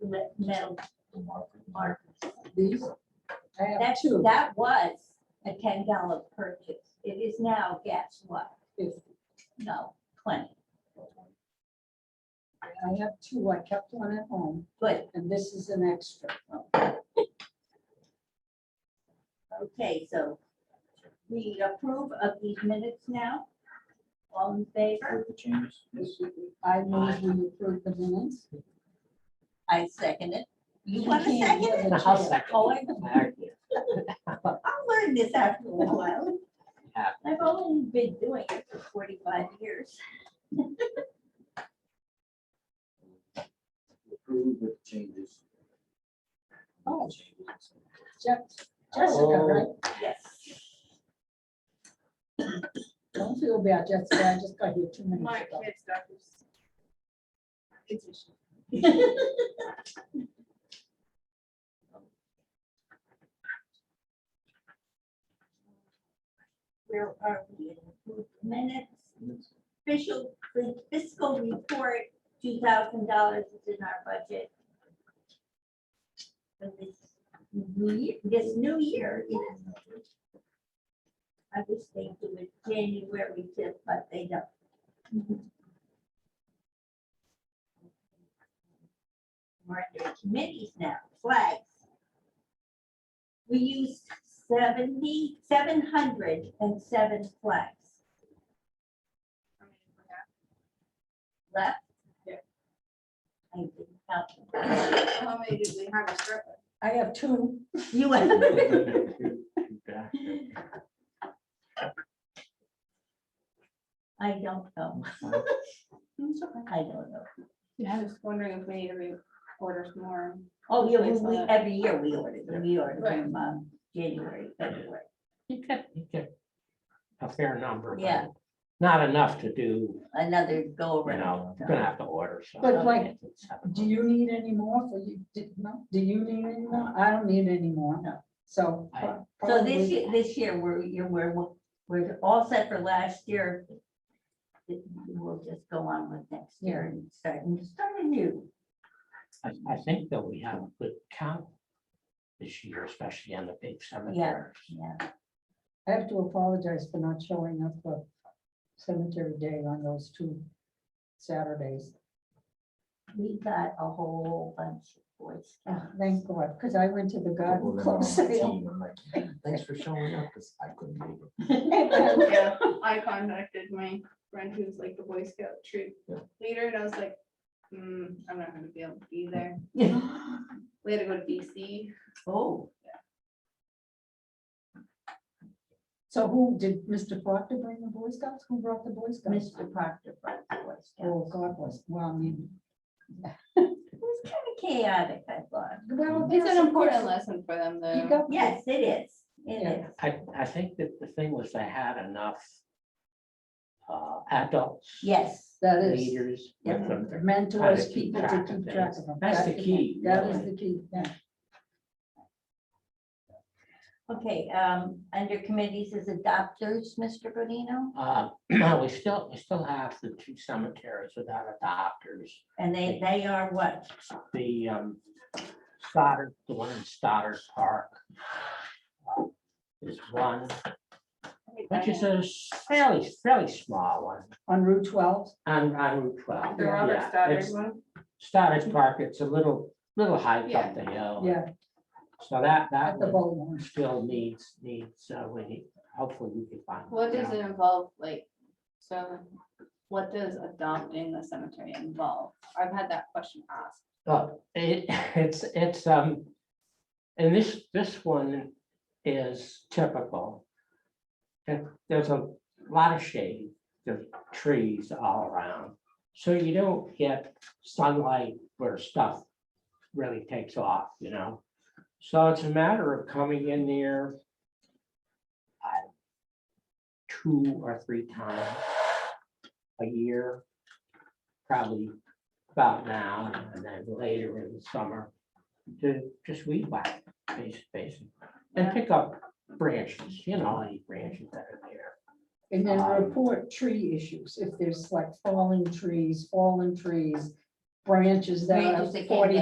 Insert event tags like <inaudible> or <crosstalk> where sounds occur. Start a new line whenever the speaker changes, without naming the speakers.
the me- metal
the market.
markers.
These? I have
That's,
two.
that was a ten dollar purchase. It is now, guess what?
Fifty.
No, twenty.
I have two. I kept one at home
Good,
and this is an extra.
okay, so we approve of these minutes now. All in favor?
With the changes?
I move we approve the minutes.
I second it. You want to
can't
second
have
it?
a
I'll
chair.
second.
Oh, I-
Alright.
I'll learn this after a while.
Yeah.
I've only been doing it for forty-five years.
Approved with changes.
Oh. <laughs> Je- Jessica, right?
Yes.
Don't feel bad, Jessica. I just got here two minutes
My
ago.
kids' doctor's. Petition.
Where are we in approved minutes? Official fiscal report, two thousand dollars is in our budget. For this new ye- this new year, yes. I wish they do it January fifth, but they don't. We're under committees now, flags. We used seventy, seven hundred and seven flags
I mean, we have
left.
Yeah.
I didn't count.
So How many did we have a strip?
I have two.
You I don't know. I don't know.
Yeah, I was wondering if we need to re- order some more.
Oh, yeah, we,
Place on
we,
it.
every year we order them, we order
Right.
them, um, January, February.
You get, you get a fair number. but
Yeah.
Not enough to do,
Another go
you
around.
know, gonna have to order some.
But like, Do you need any more for you? Did, no, do you need any more? I don't need any more.
No.
So.
I-
So
probably-
this year, this year, we're, you're, we're, we're all set for last year. It- We'll just go on with next year and start, and start anew.
I, I think that we have a good count this year, especially on the big cemeteries.
Yeah,
I have to apologize for not showing up for cemetery day on those two Saturdays.
we got a whole bunch of boys.
Oh, Thank God, because I went to the
People
<laughs> garden
that are on
club
my
uh,
sale.
team, I'm like, Thanks for showing up, because I couldn't make it.
Yeah, I contacted my friend who's like the Boy Scout troop
Yeah.
leader, and I was like, hmm, I'm not gonna be able to be there. We had to go to DC.
<laughs> Oh,
So who, did Mr. Proctor bring the Boy Scouts? Who brought the Boy Scouts?
Mr. Proctor brought the boys.
Oh, God bless, well, I mean.
It was kind of chaotic, I thought.
well,
It's
yes,
an
of
important
course,
lesson for them,
You
though.
got.
Yes, it is. It
Yeah.
is.
I, I think that the thing was they had enough uh, adults.
Yes.
That is,
Leaders with
Yeah.
them.
mentors,
keep
people to
track of
keep
things.
track of them.
That's the
That-
key,
That is
really.
the key, yeah.
Okay, um, under committees is adopters, Mr. Bonino,
Uh, <clears throat> We still, we still have the two cemeteries without adopters.
and they, they are what?
the um, Stoddard, the one in Stoddard Park uh, is one, which is a fairly, fairly small one
On Route twelve,
on, on Route twelve.
The Robert
Yeah,
Stoddard
it's
one.
Stoddard Park, it's a little, little hike
Yeah.
up the hill.
yeah,
So that, Oh, that
at the
one
bowl one.
still needs, needs, uh, we, need- hopefully we can find.
What does
yeah.
it involve, like, so what does adopting the cemetery involve? I've had that question asked.
Well, it, <laughs> it's, it's, um, and this, this one is typical. There- There's a lot of shade, there's trees all around, so you don't get sunlight where stuff really takes off, you know? So it's a matter of coming in there uh, two or three times a year, probably about now and then later in the summer to just weed whack, bas- basically, and
Yeah.
pick up branches, you know, any branches that are there.
And then
Um,
report tree issues, if there's like falling trees, fallen trees, branches that
Branches
are
that can't
forty